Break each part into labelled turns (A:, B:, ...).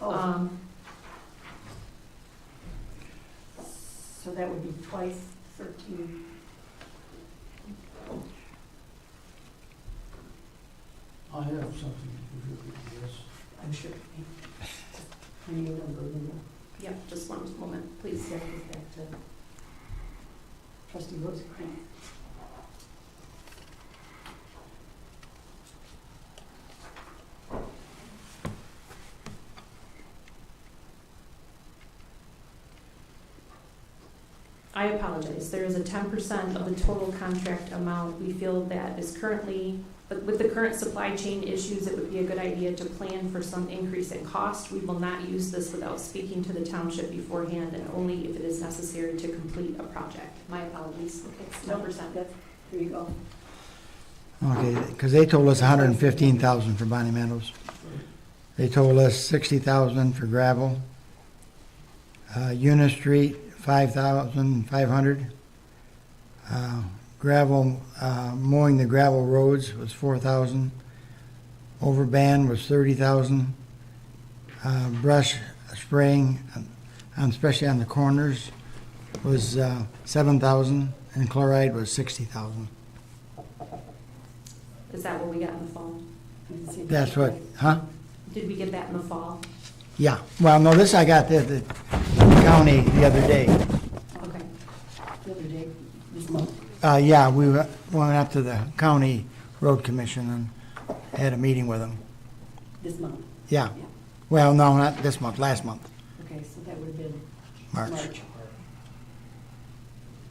A: Oh,
B: Um,
A: so that would be twice thirteen.
C: I have something to contribute to this.
A: I'm sure. Give me a number, you know.
B: yeah, just one moment, please.
A: Please, that goes back to trustee Rosenkrantz.
B: I apologize, there is a ten percent of the total contract amount we feel that is currently, but with the current supply chain issues, it would be a good idea to plan for some increase in cost. We will not use this without speaking to the township beforehand and only if it is necessary to complete a project. My apologies, it's ten percent.
A: That's- There you go.
D: Okay, because they told us hundred and fifteen thousand for Bonnie Meadows. They told us sixty thousand for gravel. Uh, Eunice Street, five thousand five hundred. Uh, gravel, uh, mowing the gravel roads was four thousand. Overban was thirty thousand. Uh, brush spraying, um, especially on the corners, was, uh, seven thousand, and chloride was sixty thousand.
B: Is that what we got in the fall?
A: You can see
D: That's
A: that.
D: what, huh?
B: Did we get that in the fall?
D: Yeah, well, no, this I got the, the county the other day.
B: Okay,
A: The other day, this month.
D: Uh, yeah, we went went up to the county road commission and had a meeting with them.
A: This month,
D: Yeah,
A: yeah.
D: well, no, not this month, last month,
A: Okay, so that would have been March.
D: March.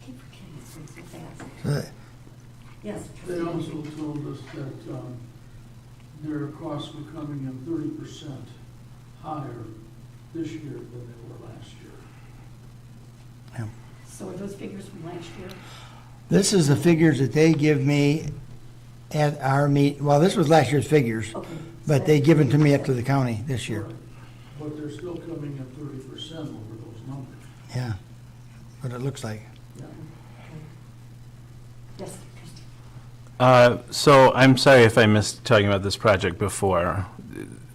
A: Keep forgetting it's been so fast.
D: Uh,
A: Yes.
C: They also told us that um, their costs were coming in thirty percent higher this year than they were last year.
A: So are those figures from last year?
D: This is the figures that they give me at our meet, well, this was last year's figures,
A: Okay. so
D: but they
A: that's-
D: give it to me up to the county this year,
C: But they're still coming in thirty percent over those numbers.
D: yeah, what it looks like.
A: Yes, trustee.
E: Uh, So I'm sorry if I missed talking about this project before.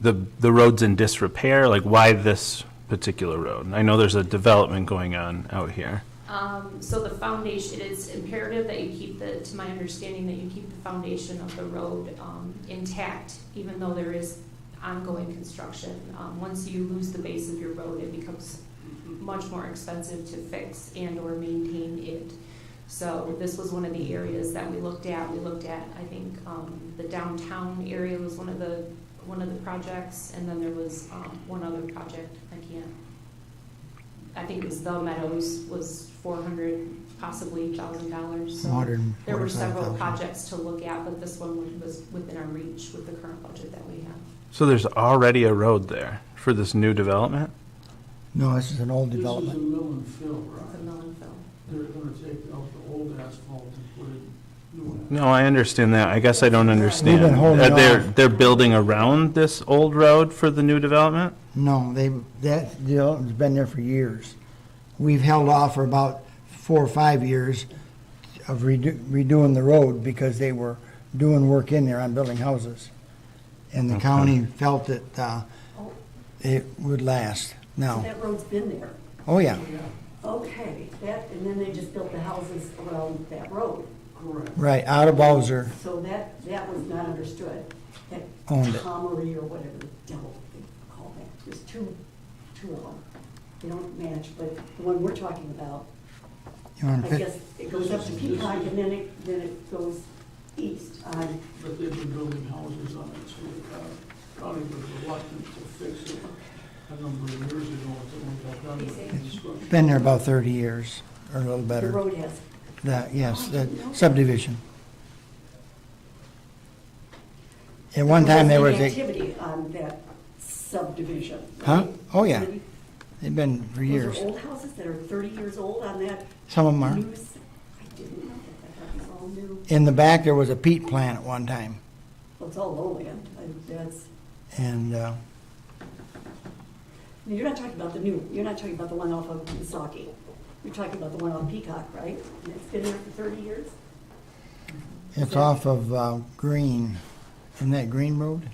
E: The, the road's in disrepair, like why this particular road? I know there's a development going on out here.
B: Um, so the foundation, it is imperative that you keep the, to my understanding, that you keep the foundation of the road, um, intact, even though there is ongoing construction. Um, once you lose the base of your road, it becomes much more expensive to fix and/or maintain it. So this was one of the areas that we looked at. We looked at, I think, um, the downtown area was one of the, one of the projects, and then there was, um, one other project, I can't I think it was the Meadows was four hundred, possibly thousand dollars, so. There were several
D: 145,000.
B: projects to look at, but this one was within our reach with the current budget that we have.
E: So there's already a road there for this new development?
D: No, this is an old
C: This is a
D: development,
C: mill and fill,
B: It's a
C: right?
B: mill and fill.
C: They're gonna take out the old asphalt and put in new asphalt.
E: No, I understand that. I guess I don't understand.
D: We've been holding
E: Uh, They're,
D: off.
E: they're building around this old road for the new development?
D: no, they, that development's been there for years. We've held off for about four or five years of redo- redoing the road because they were doing work in there on building houses. And the county felt that uh,
A: Oh,
D: it would last.
A: so
D: Now,
A: that road's been there.
D: oh yeah,
A: Okay, that, and then they just built the houses around that road.
C: Correct.
D: right, out of Bowser,
A: So that, that was not understood. That
D: Owned it.
A: Tomery or whatever the devil they call that. There's two, two of them. They don't match, but the one we're talking about,
D: you want
A: I
D: to pick?
A: guess it goes up to Peacock and then it, then it goes east on,
C: But they've been building houses on it, so the county was reluctant to fix it a number of years ago until we got done with the construction.
D: Been there about 30 years, or a little
A: the
D: better.
A: road has.
D: That, yes,
A: Oh, I
D: that
A: didn't know that.
D: subdivision. At one time, there was, a
A: Activity on that subdivision.
D: Huh?
A: right?
D: Oh, yeah.
A: Those
D: they've been for
A: are
D: years.
A: old houses that are thirty years old on that
D: Some of them are.
A: new, s- I didn't know that. I thought it was all new.
D: In the back, there was a peat plant at one time,
A: Well, it's all lowland. and That's,
D: and uh,
A: I mean, you're not talking about the new, you're not talking about the one off of Misaki. You're talking about the one on Peacock, right? And it's been there for thirty years?
D: it's off of uh, Green, isn't that Green Road?